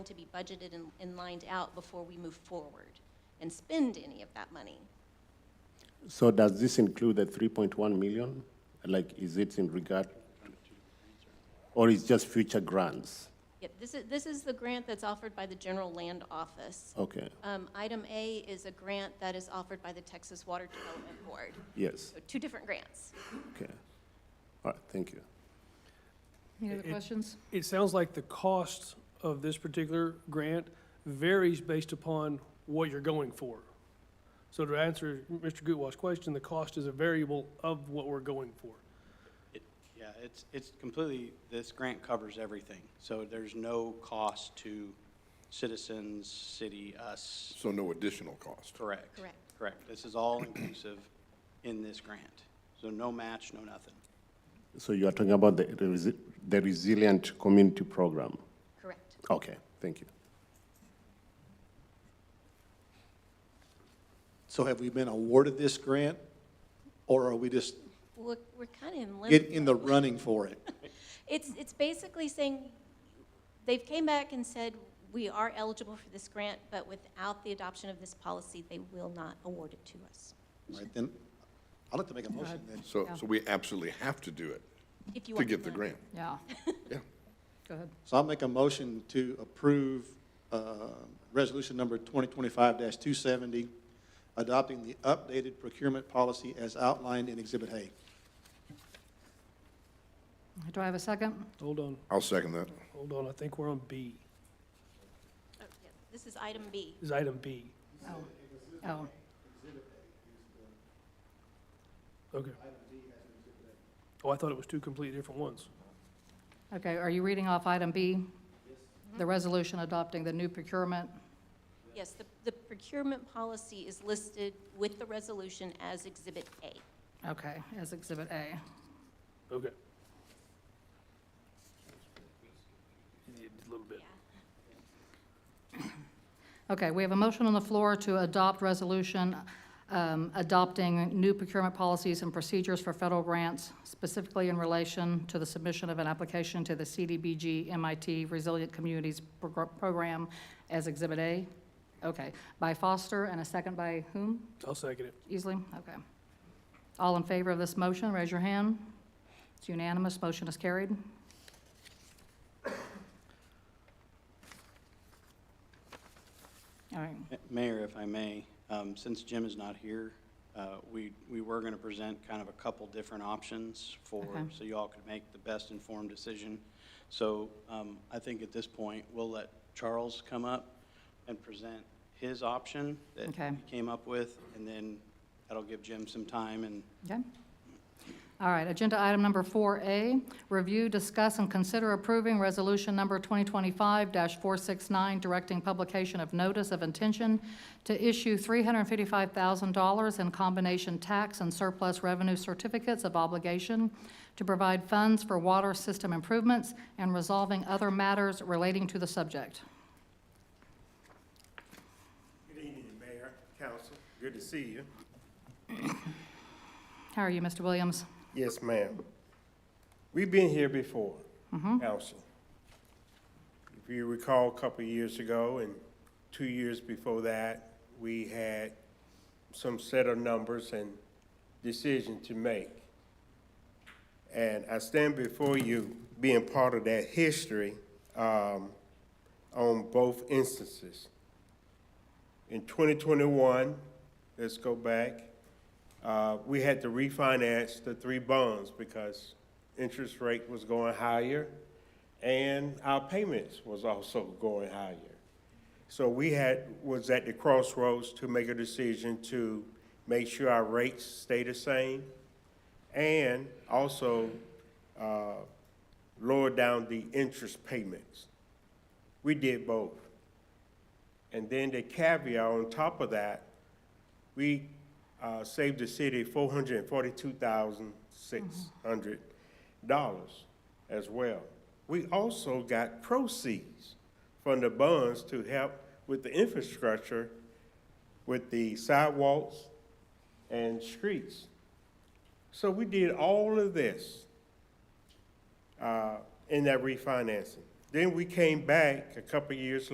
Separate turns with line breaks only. to be budgeted and, and lined out before we move forward and spend any of that money.
So does this include the three point one million? Like, is it in regard, to- or is just future grants?
Yep, this is, this is the grant that's offered by the General Land Office.
Okay,
Um, item A is a grant that is offered by the Texas Water Development Board.
yes,
So two different grants.
okay. All right, thank you.
Any other
It- it-
questions?
It sounds like the cost of this particular grant varies based upon what you're going for. So to answer Mr. Gutwash's question, the cost is a variable of what we're going for.
It- Yeah, it's, it's completely, this grant covers everything. So there's no cost to citizens, city, us.
So no additional cost?
Correct.
Correct.
Correct. This is all inclusive in this grant. So no match, no nothing.
So you are talking about the, the resi- the resilient community program?
Correct.
Okay, thank you.
So have we been awarded this grant, or are we just
We're, we're kind of in limbo.
getting in the running for it?
It's, it's basically saying, they've came back and said, we are eligible for this grant, but without the adoption of this policy, they will not award it to us.
Right, then, I'd like to make a motion then.
So, so we absolutely have to do it
If you
to
want
get the
know.
grant?
Yeah,
Yeah.
go ahead.
So I'll make a motion to approve, uh, resolution number twenty twenty-five two seventy, adopting the updated procurement policy as outlined in Exhibit A.
Do I have a second?
Hold on,
I'll second that.
hold on, I think we're on B,
Oh, yeah. This is item B.
is item B.
Oh, oh,
Okay. Oh, I thought it was two completely different ones.
okay, are you reading off item B? The resolution adopting the new procurement?
Yes, the, the procurement policy is listed with the resolution as Exhibit A.
Okay, as Exhibit A.
Okay. Yeah, just A little bit.
Okay, we have a motion on the floor to adopt resolution um, adopting new procurement policies and procedures for federal grants, specifically in relation to the submission of an application to the CDBG MIT Resilient Communities Progr- Program as Exhibit A. Okay, by Foster and a second by whom?
I'll second it.
Easily, okay. All in favor of this motion, raise your hand. It's unanimous, motion is carried. All right,
Ma- Mayor, if I may, um, since Jim is not here, uh, we, we were going to present kind of a couple different options for,
Okay.
so you all could make the best informed decision. So um, I think at this point, we'll let Charles come up and present his option that
Okay.
he came up with, and then that'll give Jim some time and
okay. All right, agenda item number 4A, review, discuss, and consider approving resolution number 2025-469, directing publication of notice of intention to issue $355,000 in combination tax and surplus revenue certificates of obligation to provide funds for water system improvements and resolving other matters relating to the subject.
Good evening, Mayor, Council. Good to see you.
How are you, Mr. Williams?
Yes, ma'am. We've been here before, Council. If you recall, a couple of years ago and two years before that, we had some set of numbers and decision to make. And I stand before you being part of that history um, on both instances. In 2021, let's go back, uh, we had to refinance the three bonds because interest rate was going higher and our payments was also going higher. So we had, was at the crossroads to make a decision to make sure our rates stay the same and also uh, lower down the interest payments. We did both. And then the caveat on top of that, we uh, saved the city four hundred and forty-two thousand six hundred dollars as well. We also got proceeds from the bonds to help with the infrastructure, with the sidewalks and streets. So we did all of this uh, in that refinancing. Then we came back a couple years